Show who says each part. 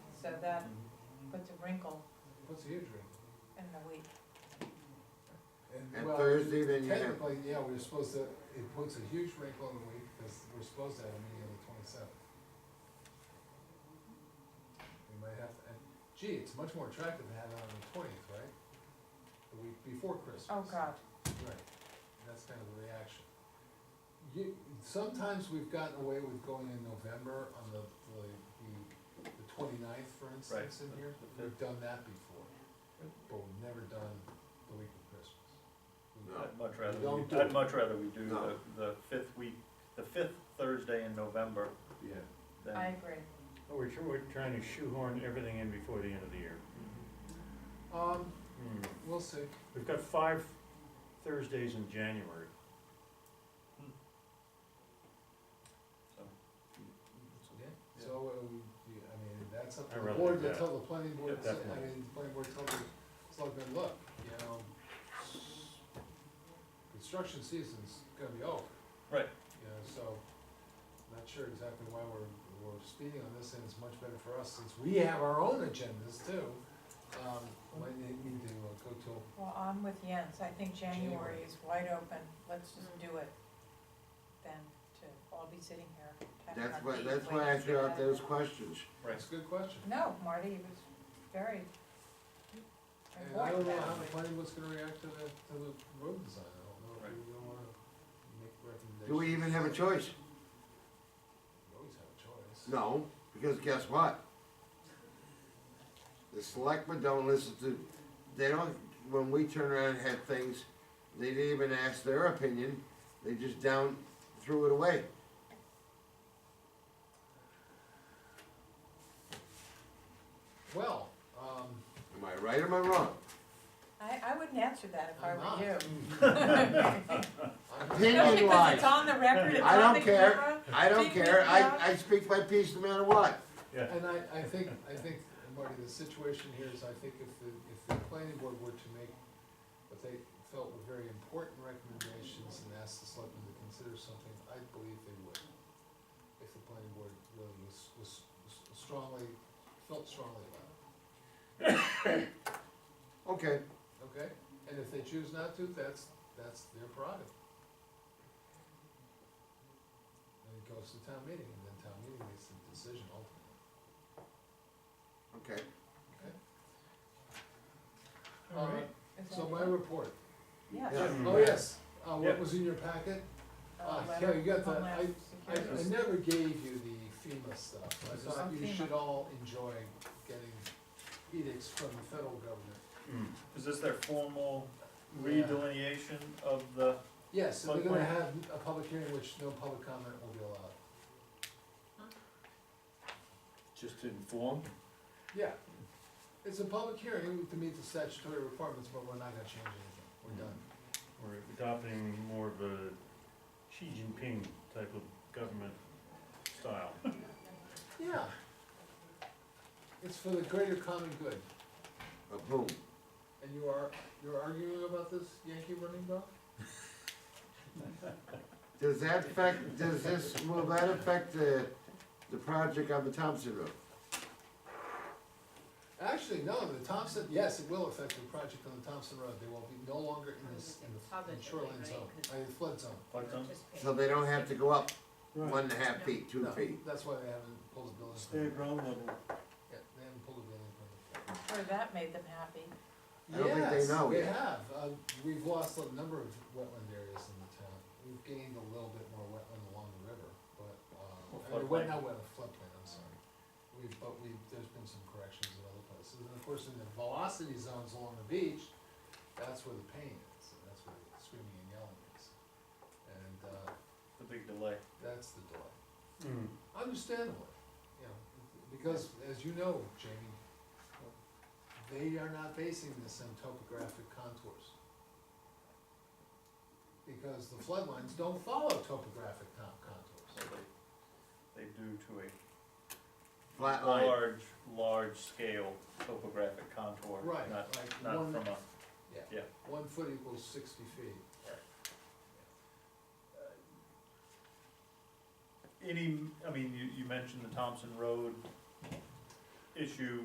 Speaker 1: that puts a wrinkle
Speaker 2: What's the age range?
Speaker 1: in the week.
Speaker 3: And
Speaker 2: well,
Speaker 3: Thursday, then you have,
Speaker 2: Technically, yeah, we're supposed to, it puts a huge wrinkle in the week, because we're supposed to have a meeting on the twenty-seventh. We might have to, and gee, it's much more attractive to have it on the twentieth, right? The week before Christmas.
Speaker 1: Oh, God.
Speaker 2: Right, that's kind of the reaction. You, sometimes we've gotten away with going in November on the, the, the- the twenty-ninth, for instance, in
Speaker 4: the-
Speaker 2: here,
Speaker 4: the
Speaker 2: we've done that before. But we've never done the week of Christmas. We've-
Speaker 3: No.
Speaker 4: I'd much rather,
Speaker 3: We don't
Speaker 4: we-
Speaker 3: do it.
Speaker 4: I'd much rather we do
Speaker 3: No.
Speaker 4: the, the fifth week, the fifth Thursday in November
Speaker 3: yeah,
Speaker 4: than.
Speaker 1: I agree.
Speaker 5: Oh, We're, tr- we're trying to shoehorn everything in before the end of the year.
Speaker 2: Um,
Speaker 5: Hmm.
Speaker 2: We'll see.
Speaker 5: We've got five Thursdays in January.
Speaker 4: So, Yeah.
Speaker 2: So, uh, we, you- I mean, that's up to
Speaker 5: I
Speaker 2: the
Speaker 5: really
Speaker 2: board
Speaker 5: like
Speaker 2: to
Speaker 5: that.
Speaker 2: tell the planning board,
Speaker 5: Yeah,
Speaker 2: I
Speaker 5: definitely.
Speaker 2: mean, the planning board tell the selectmen, look, you know, construction season's gonna be over.
Speaker 4: Right.
Speaker 2: You know, so, not sure exactly why we're, we're speeding on this, and it's much better for us, since we have our own agendas too. Um, might need need to uh, go to,
Speaker 1: Well, I'm with Jens. I think January
Speaker 2: January.
Speaker 1: is wide open. Let's just do it then to all be sitting here. tapping
Speaker 3: that's
Speaker 1: our
Speaker 3: why,
Speaker 1: feet,
Speaker 3: that's why I
Speaker 1: waiting
Speaker 3: threw
Speaker 1: for that.
Speaker 3: out those questions.
Speaker 2: that's a good question.
Speaker 1: No, Marty, it was very
Speaker 2: And I don't
Speaker 1: important
Speaker 2: know how
Speaker 1: that
Speaker 2: the
Speaker 1: way.
Speaker 2: planning board's gonna react to the, to the road design, I don't know if
Speaker 4: Right.
Speaker 2: we really wanna make recommendations.
Speaker 3: Do we even have a choice?
Speaker 2: We always have a choice.
Speaker 3: No, because guess what? The selectmen don't listen to, they don't, when we turn around and had things, they didn't even ask their opinion, they just down, threw it away.
Speaker 2: Well, um,
Speaker 3: Am I right or am I wrong?
Speaker 1: I, I wouldn't answer that if I
Speaker 2: I'm not.
Speaker 1: were you.
Speaker 2: I'm-
Speaker 1: Especially
Speaker 3: Opinion
Speaker 1: 'cause it's
Speaker 3: wise,
Speaker 1: on the record, it's
Speaker 3: I
Speaker 1: on
Speaker 3: don't
Speaker 1: the
Speaker 3: care.
Speaker 1: camera.
Speaker 3: I don't care, I, I speak my piece no matter what.
Speaker 4: Hmm.
Speaker 5: Yeah.
Speaker 2: And I, I think, I think, Marty, the situation here is, I think if the, if the planning board were to make what they felt were very important recommendations and asked the selectmen to consider something, I believe they would. If the planning board really was, was was strongly, felt strongly about it,
Speaker 3: Okay,
Speaker 2: okay? And if they choose not to, that's, that's their prerogative. And it goes to town meeting, and then town meeting makes the decision ultimately.
Speaker 3: okay,
Speaker 2: All
Speaker 5: Alright.
Speaker 2: right,
Speaker 1: Is
Speaker 2: Uh, so
Speaker 1: that
Speaker 2: my
Speaker 1: it?
Speaker 2: report,
Speaker 1: Yes.
Speaker 3: Yeah.
Speaker 2: oh yes, uh,
Speaker 5: Yeah.
Speaker 2: what was in your packet?
Speaker 1: Uh,
Speaker 2: Ah,
Speaker 1: letter
Speaker 2: yeah, you got
Speaker 1: from
Speaker 2: the-
Speaker 1: Homeland
Speaker 2: I,
Speaker 1: Security.
Speaker 2: I never gave you the FEMA stuff, I thought you
Speaker 1: FEMA.
Speaker 2: should all enjoy getting edicts from the federal government.
Speaker 5: Hmm.
Speaker 4: Is this their formal
Speaker 2: Yeah.
Speaker 4: redelineation of the,
Speaker 2: Yes, and they're gonna
Speaker 4: Like
Speaker 2: have a public hearing which no public comment will be allowed.
Speaker 4: just to inform?
Speaker 2: Yeah, it's a public hearing to meet the statutory requirements, but we're not gonna change anything, we're done.
Speaker 5: We're adopting more of a Xi Jinping type of government style.
Speaker 2: Yeah. It's for the greater common good,
Speaker 3: a boom.
Speaker 2: and you are, you're arguing about this Yankee running dog?
Speaker 3: Does that affect, does this, will that affect the, the project on the Thompson Road?
Speaker 2: Actually, no, the Thompson, yes, it will affect the project on the Thompson Road, they will be no longer in this, in the in shoreline zone, uh, in flood zone.
Speaker 3: So they don't have to go up one and a half feet, two
Speaker 2: No,
Speaker 3: feet?
Speaker 2: That's why they haven't pulled the building. permit.
Speaker 4: ground level.
Speaker 2: Yeah, they haven't pulled the building permit.
Speaker 1: Or that made them happy.
Speaker 3: I don't think they know
Speaker 2: Yes, we
Speaker 3: yet.
Speaker 2: have, uh, we've lost a number of wetland areas in the town, we've gained a little bit more wetland along the river, but,
Speaker 4: Well,
Speaker 2: uh, I mean,
Speaker 4: floodplain.
Speaker 2: wet, not wetland, floodplain, I'm sorry. We've, but we, there's been some corrections in other places, and of course, in the velocity zones along the beach, that's where the pain is, and that's where the screaming and yelling is. And, uh,
Speaker 4: The big delay.
Speaker 2: that's the delay.
Speaker 5: Hmm.
Speaker 2: Understandable, you know, because as you know, Jamie, they are not basing this on topographic contours. Because the floodlines don't follow topographic con-
Speaker 4: So
Speaker 2: contours.
Speaker 4: they, they do to a
Speaker 3: Flat line.
Speaker 4: large, large scale topographic contour,
Speaker 2: Right,
Speaker 4: not,
Speaker 2: like
Speaker 4: not
Speaker 2: one-
Speaker 4: from a, yeah.
Speaker 2: One foot equals sixty feet.
Speaker 4: any, I mean, you, you mentioned the Thompson Road issue,